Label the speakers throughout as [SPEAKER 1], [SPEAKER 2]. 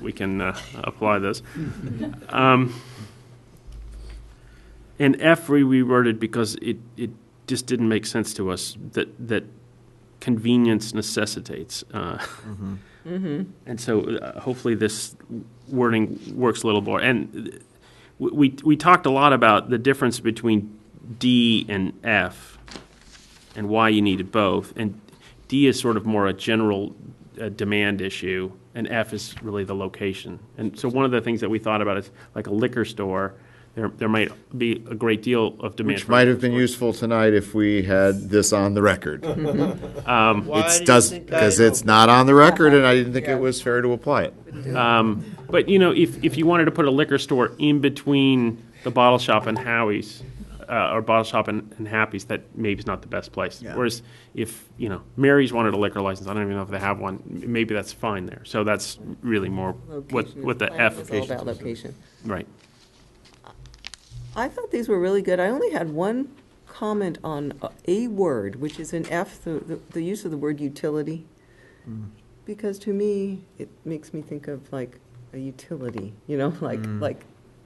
[SPEAKER 1] we can uh, apply those. Um, And F, we reworded because it, it just didn't make sense to us that, that convenience necessitates. uh, And so uh, hopefully this wording works a little more. And uh, we, we we talked a lot about the difference between D and F and why you needed both. And D is sort of more a general uh, demand issue, and F is really the location. And so one of the things that we thought about is like a liquor store, there, there might be a great deal of demand.
[SPEAKER 2] Which
[SPEAKER 1] for
[SPEAKER 2] might
[SPEAKER 1] liquor
[SPEAKER 2] have been
[SPEAKER 1] stores.
[SPEAKER 2] useful tonight if we had this on the record.
[SPEAKER 3] Why do
[SPEAKER 2] It
[SPEAKER 3] you
[SPEAKER 2] does,
[SPEAKER 3] think
[SPEAKER 2] because
[SPEAKER 3] that is
[SPEAKER 2] it's not on the record, and I didn't think
[SPEAKER 3] Yeah.
[SPEAKER 2] it was fair to apply it.
[SPEAKER 1] But, you know, if, if you wanted to put a liquor store in between the bottle shop and Howie's, uh, or bottle shop and, and Happy's, that maybe is not the best place.
[SPEAKER 2] Yeah.
[SPEAKER 1] Whereas if, you know, Mary's wanted a liquor license, I don't even know if they have one, m- maybe that's fine there. So that's really more what,
[SPEAKER 4] Location
[SPEAKER 1] what
[SPEAKER 4] is-
[SPEAKER 1] the F.
[SPEAKER 4] It's all about location.
[SPEAKER 1] Right.
[SPEAKER 4] I thought these were really good. I only had one comment on uh, a word, which is in F, the, the- the use of the word utility. Because to me, it makes me think of like a utility, you know, like, like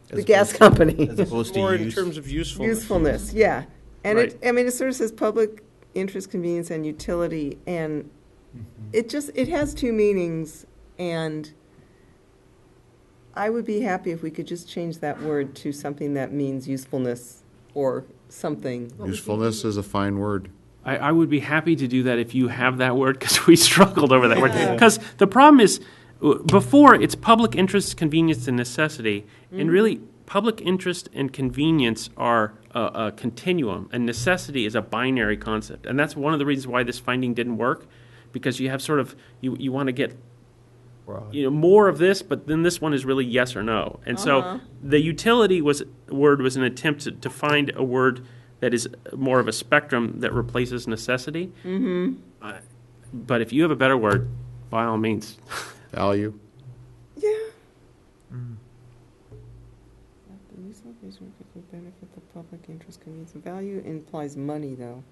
[SPEAKER 4] the
[SPEAKER 5] As
[SPEAKER 4] gas
[SPEAKER 5] opposed-
[SPEAKER 4] company.
[SPEAKER 5] As opposed to
[SPEAKER 3] More in
[SPEAKER 5] use.
[SPEAKER 3] terms of usefulness.
[SPEAKER 4] Usefulness, yeah. And it,
[SPEAKER 1] Right.
[SPEAKER 4] I mean, it sort of says public interest, convenience, and utility, and it just, it has two meanings, and I would be happy if we could just change that word to something that means usefulness or something.
[SPEAKER 2] Usefulness is a fine word.
[SPEAKER 1] I, I would be happy to do that if you have that word because we struggled over that word. Because the problem is, w- before it's public interest, convenience, and necessity, and really public interest and convenience are a, a continuum, and necessity is a binary concept, and that's one of the reasons why this finding didn't work, because you have sort of you you want to get you know more of this but then this one is really yes or no and so the utility was word was an attempt to, to find a word that is more of a spectrum that replaces necessity mm-hmm. but if you have a better word by all means
[SPEAKER 2] Value.
[SPEAKER 4] Yeah. The use of these words will benefit the public interest, convenience, and value implies money, though.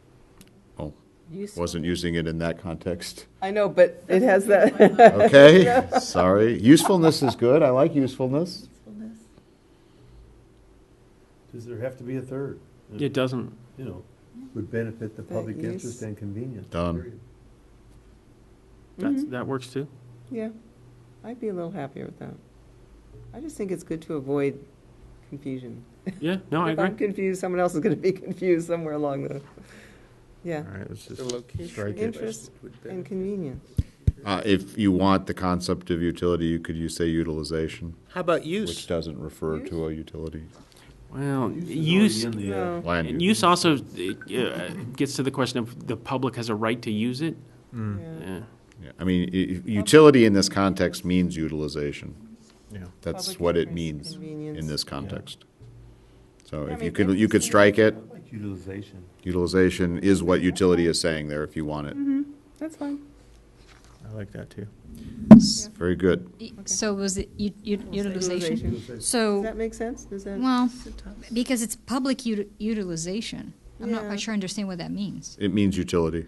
[SPEAKER 2] Oh, wasn't using it in that context.
[SPEAKER 4] I know, but it has that.
[SPEAKER 2] Okay, sorry. Usefulness is good. I like usefulness.
[SPEAKER 5] Does there have to be a third?
[SPEAKER 1] it doesn't
[SPEAKER 5] You know, would benefit the public
[SPEAKER 4] use.
[SPEAKER 5] interest and convenience.
[SPEAKER 2] Done.
[SPEAKER 5] period.
[SPEAKER 1] that's, that works too
[SPEAKER 4] Yeah, I'd be a little happier with that. I just think it's good to avoid confusion.
[SPEAKER 1] yeah no i
[SPEAKER 4] If I'm
[SPEAKER 1] agree
[SPEAKER 4] confused, someone else is going to be confused somewhere along the, yeah,
[SPEAKER 5] All right, let's just
[SPEAKER 3] The location.
[SPEAKER 5] strike it.
[SPEAKER 4] interest and convenience.
[SPEAKER 2] Uh, if you want the concept of utility, you could use, say, utilization,
[SPEAKER 3] How about
[SPEAKER 2] which
[SPEAKER 3] use?
[SPEAKER 2] doesn't refer to a utility.
[SPEAKER 1] well use
[SPEAKER 5] Use is already in the, uh,
[SPEAKER 4] No.
[SPEAKER 2] Land
[SPEAKER 1] and
[SPEAKER 2] use.
[SPEAKER 1] use also uh, gets to the question of the public has a right to use it
[SPEAKER 5] Hmm.
[SPEAKER 4] Yeah.
[SPEAKER 1] yeah.
[SPEAKER 2] Yeah, I mean, i- i- utility in this context means utilization.
[SPEAKER 5] Yeah.
[SPEAKER 2] That's
[SPEAKER 4] Public
[SPEAKER 2] what it
[SPEAKER 4] interest,
[SPEAKER 2] means in
[SPEAKER 4] convenience.
[SPEAKER 2] this context. So
[SPEAKER 4] Yeah, I
[SPEAKER 2] if you
[SPEAKER 4] mean,
[SPEAKER 2] could, you could
[SPEAKER 4] interesting.
[SPEAKER 2] strike it.
[SPEAKER 5] I like utilization.
[SPEAKER 2] Utilization is what utility is saying there if you want it.
[SPEAKER 4] That's fine.
[SPEAKER 5] I like that too.
[SPEAKER 2] It's Very good.
[SPEAKER 6] Y- e-, So was it u- u- utilization?
[SPEAKER 4] Does that
[SPEAKER 6] So,
[SPEAKER 4] make sense? Does that?
[SPEAKER 6] well, because it's public ut- utilization. I'm not
[SPEAKER 4] Yeah.
[SPEAKER 6] quite sure I understand what that means.
[SPEAKER 2] It means utility.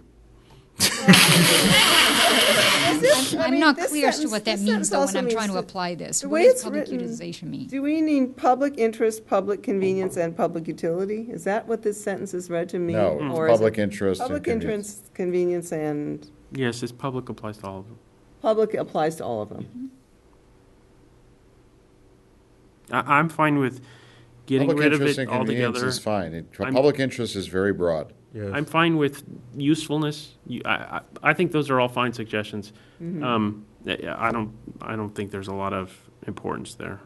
[SPEAKER 4] I
[SPEAKER 6] I'm
[SPEAKER 4] mean,
[SPEAKER 6] not
[SPEAKER 4] this
[SPEAKER 6] clear as to
[SPEAKER 4] sentence-
[SPEAKER 6] what that
[SPEAKER 4] this
[SPEAKER 6] means
[SPEAKER 4] sentence
[SPEAKER 6] though when
[SPEAKER 4] also
[SPEAKER 6] I'm trying
[SPEAKER 4] means
[SPEAKER 6] to
[SPEAKER 4] that-
[SPEAKER 6] apply this.
[SPEAKER 4] the
[SPEAKER 6] What
[SPEAKER 4] way
[SPEAKER 6] does
[SPEAKER 4] it's
[SPEAKER 6] public
[SPEAKER 4] written-
[SPEAKER 6] utilization mean?
[SPEAKER 4] Do we need public interest, public convenience, and public utility? Is that what this sentence is read to mean?
[SPEAKER 2] No,
[SPEAKER 4] or
[SPEAKER 2] it's
[SPEAKER 4] is it
[SPEAKER 2] public interest. and
[SPEAKER 4] Public
[SPEAKER 2] convenience.
[SPEAKER 4] interest, convenience, and
[SPEAKER 1] yes it's public applies to all of them
[SPEAKER 4] public applies to all of them.
[SPEAKER 1] I, i'm fine with getting
[SPEAKER 2] Public
[SPEAKER 1] rid of
[SPEAKER 2] interest
[SPEAKER 1] it
[SPEAKER 2] and convenience
[SPEAKER 1] altogether
[SPEAKER 2] Is fine. It-
[SPEAKER 1] I'm-
[SPEAKER 2] Public interest is very broad.
[SPEAKER 1] I'm fine with usefulness. You- I, I, I think those are all fine suggestions.
[SPEAKER 4] Mm-hmm.
[SPEAKER 1] Um, I I don't, I don't think there's a lot of importance there.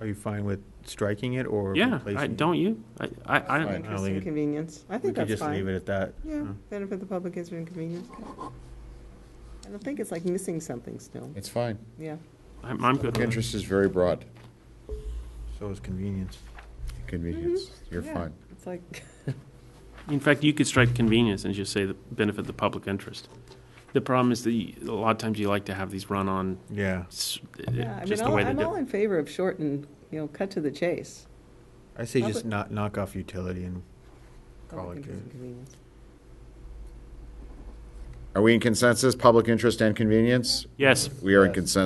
[SPEAKER 7] Are you fine with striking it or
[SPEAKER 1] Yeah,
[SPEAKER 7] replacing
[SPEAKER 1] I,
[SPEAKER 7] it?
[SPEAKER 1] don't you? I, I,
[SPEAKER 4] Public
[SPEAKER 1] I,
[SPEAKER 7] I'll
[SPEAKER 4] Interest
[SPEAKER 7] leave
[SPEAKER 4] and
[SPEAKER 7] it.
[SPEAKER 4] Mm-hmm. convenience. I
[SPEAKER 7] We
[SPEAKER 4] think
[SPEAKER 7] could
[SPEAKER 4] that's
[SPEAKER 7] just leave
[SPEAKER 4] fine.
[SPEAKER 7] it at that.
[SPEAKER 4] Yeah,
[SPEAKER 7] Huh.
[SPEAKER 4] benefit the public interest and convenience. I don't think it's like missing something still,
[SPEAKER 2] It's fine.
[SPEAKER 4] yeah.
[SPEAKER 1] I'm, I'm good
[SPEAKER 2] Public
[SPEAKER 1] with it.
[SPEAKER 2] interest is very broad.
[SPEAKER 7] So is convenience.
[SPEAKER 2] Convenience, you're
[SPEAKER 4] Yeah,
[SPEAKER 2] fine.
[SPEAKER 4] It's like,
[SPEAKER 1] In fact, you could strike convenience and just say the benefit the public interest. The problem is that you- a lot of times you like to have these run on,
[SPEAKER 7] Yeah.
[SPEAKER 1] s-
[SPEAKER 4] yeah, I mean,
[SPEAKER 1] just the
[SPEAKER 4] all-
[SPEAKER 1] way they
[SPEAKER 4] I'm all
[SPEAKER 1] do.
[SPEAKER 4] in favor of short and, you know, cut to the chase.
[SPEAKER 7] I say just
[SPEAKER 4] Public-
[SPEAKER 7] not knock off utility and call
[SPEAKER 4] Public
[SPEAKER 7] it
[SPEAKER 4] interest
[SPEAKER 7] good.
[SPEAKER 4] and convenience.
[SPEAKER 2] Are we in consensus, public interest and convenience?
[SPEAKER 1] Yes.
[SPEAKER 2] We are in consensus.